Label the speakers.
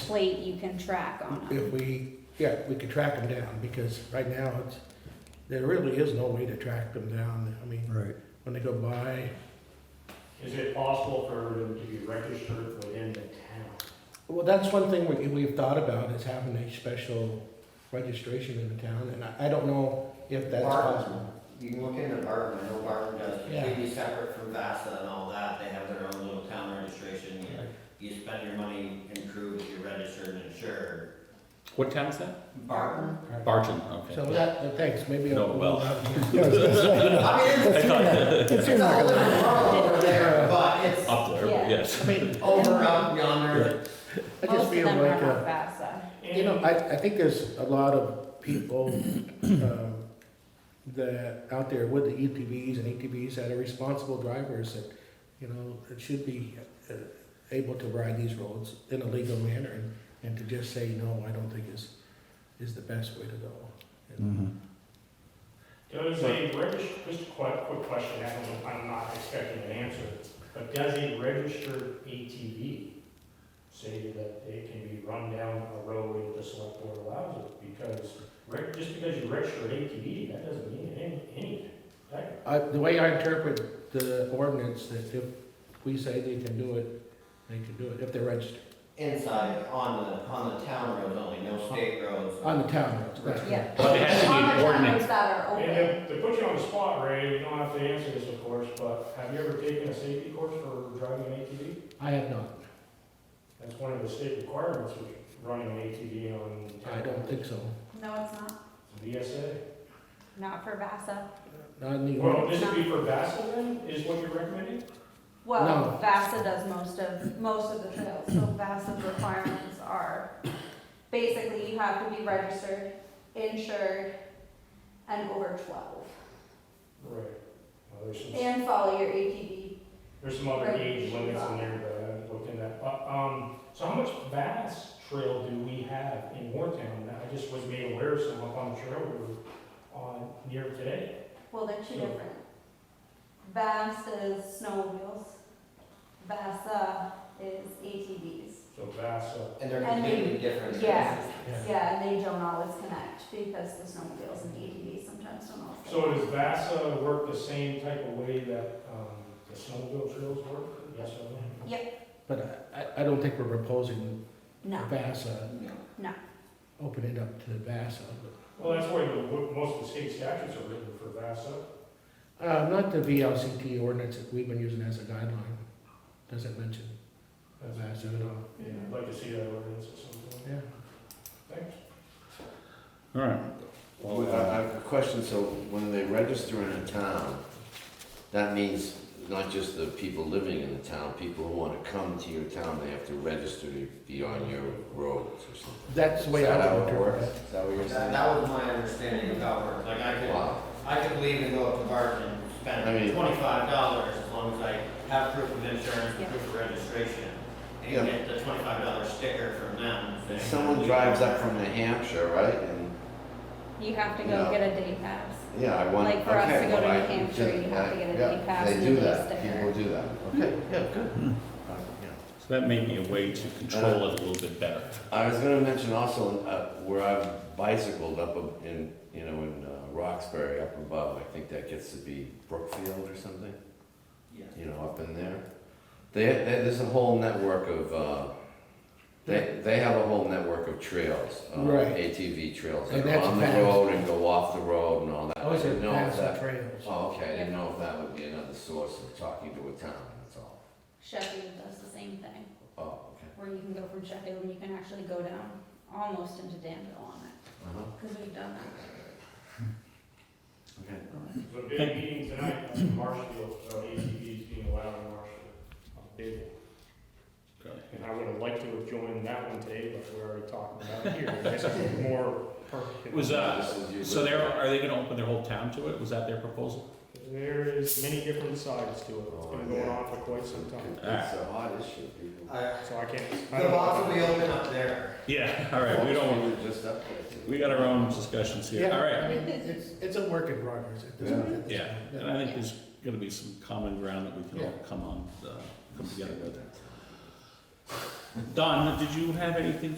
Speaker 1: plate you can track on them.
Speaker 2: If we, yeah, we could track them down, because right now, it's, there really is no way to track them down. I mean,
Speaker 3: Right.
Speaker 2: when they go by,
Speaker 4: Is it possible for them to be registered within the town?
Speaker 2: well, that's one thing we, we've thought about, is having a special registration in the town, and I, I don't know if that's
Speaker 5: Barton.
Speaker 2: possible.
Speaker 5: You can look into Barton, I know Barton does,
Speaker 2: Yeah.
Speaker 5: completely separate from VASA and all that, they have their own little town registration. You- You spend your money and prove that you're registered and insured.
Speaker 6: What town is that?
Speaker 5: Barton?
Speaker 6: Barton, okay.
Speaker 2: So that, uh, thanks, maybe. I'll-
Speaker 6: No, well.
Speaker 5: I mean, it's,
Speaker 6: I thought,
Speaker 5: it's a whole different world over there, but it's
Speaker 6: up there,
Speaker 1: Yeah.
Speaker 6: but yes.
Speaker 2: I mean,
Speaker 5: over up yonder.
Speaker 2: I
Speaker 1: Most
Speaker 2: just
Speaker 1: of
Speaker 2: feel
Speaker 1: them
Speaker 2: like,
Speaker 1: are
Speaker 2: uh,
Speaker 1: not FAFSA.
Speaker 2: You know, I, I think there's a lot of people, um, that, out there with the EPVs and ATVs that are responsible drivers that, you know, that should be, uh, able to ride these roads in a legal manner and, and to just say, no, I don't think is, is the best way to go.
Speaker 6: Mm-hmm.
Speaker 4: Does a registered, just a quick, quick question, I don't, I'm not expecting an answer, but does a registered ATV say that it can be run down a road if the select board allows it? Because, reg- just because you register an ATV, that doesn't mean any- anything, right?
Speaker 2: I, the way I interpret the ordinance, that if we say they can do it, they can do it, if they're registered,
Speaker 5: Inside, on the, on the town roads only, no state roads.
Speaker 2: on the town roads, that's right.
Speaker 1: Yeah.
Speaker 6: But it has to be an ordinance.
Speaker 1: That are open.
Speaker 4: And to, to put you on the spot, Ray, you don't have to answer this, of course, but have you ever taken a safety course for driving an ATV?
Speaker 2: I have not,
Speaker 4: That's one of the state requirements of running an ATV on.
Speaker 2: I don't think so,
Speaker 1: No, it's not,
Speaker 4: VSA.
Speaker 1: not for FAFSA.
Speaker 2: not in the
Speaker 4: Well,
Speaker 2: ordinance.
Speaker 4: this would be for Vassal then, is what you're recommending?
Speaker 1: Well,
Speaker 2: No.
Speaker 1: VASA does most of, most of the trails, so VASA's requirements are, basically, you have to be registered, insured, and over twelve,
Speaker 4: Right. Well, there's some,
Speaker 1: and follow your ATV.
Speaker 4: there's some other
Speaker 1: Right.
Speaker 4: age limits in there, but I haven't looked in that. Uh, Um, so how much Vass Trail do we have in Wartown? I just was made aware of some up on the trail we were on near today.
Speaker 1: Well, they're two
Speaker 4: Yeah.
Speaker 1: different. VASA is snowmobiles, VASA is ATVs.
Speaker 4: So Vassal,
Speaker 5: And they're
Speaker 1: And they-
Speaker 5: completely different.
Speaker 1: yeah.
Speaker 5: spaces.
Speaker 1: Yeah, and they don't always connect because the snowmobiles and ATVs sometimes don't always.
Speaker 4: so does Vassa work the same type of way that, um, the snowmobile trails work? Yes or no?
Speaker 2: But I, I don't think we're proposing
Speaker 1: No,
Speaker 2: VASA,
Speaker 5: No.
Speaker 2: open it up to VASA.
Speaker 4: Well, that's why the- most of the state statutes are written for Vassa.
Speaker 2: Uh, not the VLCT ordinance that we've been using as a guideline, doesn't mention VASA at all.
Speaker 4: Yeah, I'd like to see that ordinance at some point.
Speaker 2: Yeah.
Speaker 4: Thanks.
Speaker 6: All right.
Speaker 7: Well, I I have a question, so when they register in a town, that means not just the people living in the town, people who wanna come to your town, they have to register to be on your roads or something?
Speaker 2: That's the way
Speaker 7: Is that
Speaker 2: I
Speaker 7: how
Speaker 2: would
Speaker 7: it
Speaker 2: interpret
Speaker 7: works?
Speaker 2: it.
Speaker 7: Is that what you're
Speaker 5: That,
Speaker 7: saying?
Speaker 5: that was my understanding of how it worked, like I could.
Speaker 7: Wow,
Speaker 5: I could leave and go up to Barton and
Speaker 7: I
Speaker 5: spend
Speaker 7: mean-
Speaker 5: twenty-five dollars as long as I have proof of insurance
Speaker 1: Yeah.
Speaker 5: and proof of registration.
Speaker 7: Yeah.
Speaker 5: And get the twenty-five dollar sticker from them.
Speaker 7: if
Speaker 5: saying-
Speaker 7: someone drives up from New Hampshire, right, and,
Speaker 1: you have to
Speaker 7: No.
Speaker 1: go get a day pass.
Speaker 7: yeah, I want, okay.
Speaker 1: Like for us to go to
Speaker 7: well, I
Speaker 1: New
Speaker 7: can
Speaker 1: Hampshire,
Speaker 7: just-
Speaker 1: you have
Speaker 7: I-
Speaker 1: to get a
Speaker 7: yeah,
Speaker 1: day pass and
Speaker 7: They
Speaker 1: a
Speaker 7: do
Speaker 1: day
Speaker 7: that,
Speaker 1: sticker.
Speaker 7: people do that, okay, yeah, good.
Speaker 2: Hmm.
Speaker 7: Uh, yeah.
Speaker 6: So that may be a way to control it a little bit better.
Speaker 7: I was gonna mention also, uh, where I've bicycled up ab- in, you know, in uh, Roxbury up above, I think that gets to be Brookfield or something,
Speaker 5: Yeah.
Speaker 7: you know, up in there. They, they, there's a whole network of, uh, they, they have a whole network of trails, uh,
Speaker 2: Right.
Speaker 7: ATV trails
Speaker 2: And
Speaker 7: that are
Speaker 2: that's
Speaker 7: on the
Speaker 2: fast. Oh,
Speaker 7: road and go off the road and all that.
Speaker 2: Those
Speaker 7: I
Speaker 2: are
Speaker 7: didn't know if
Speaker 2: VASA
Speaker 7: that-
Speaker 2: trails.
Speaker 7: Oh, okay, I didn't know if that would be another source of talking to a town, that's all.
Speaker 1: Sheffield does the same thing,
Speaker 7: Oh, okay,
Speaker 1: where you can go from Sheffield and you can actually go down almost into Danville on it,
Speaker 7: uh-huh,
Speaker 1: because we've done that.
Speaker 7: okay.
Speaker 4: There's a big meeting tonight on Marshfield, about ATVs being allowed in Marshfield. A big one. And I would have liked to have joined that one today, but we're already talking about it here. This is more perfect.
Speaker 6: Was, uh,
Speaker 7: This is you.
Speaker 6: so there, are they gonna open their whole town to it? Was that their proposal?
Speaker 4: There is many different sides to it. It's been going on for quite some time.
Speaker 7: It's a hot issue, people.
Speaker 5: I-
Speaker 4: So I can't. I
Speaker 5: The
Speaker 4: don't-
Speaker 5: box will be open up there.
Speaker 6: Yeah, all right, we don't,
Speaker 7: We're just up there.
Speaker 6: we got our own discussions here.
Speaker 2: Yeah,
Speaker 6: All
Speaker 2: I
Speaker 6: right.
Speaker 2: mean, it's, it's a work in progress at this point. It's-
Speaker 6: Yeah, and I think there's gonna be some common ground that we can all come on, uh, come together with. Don, did you have anything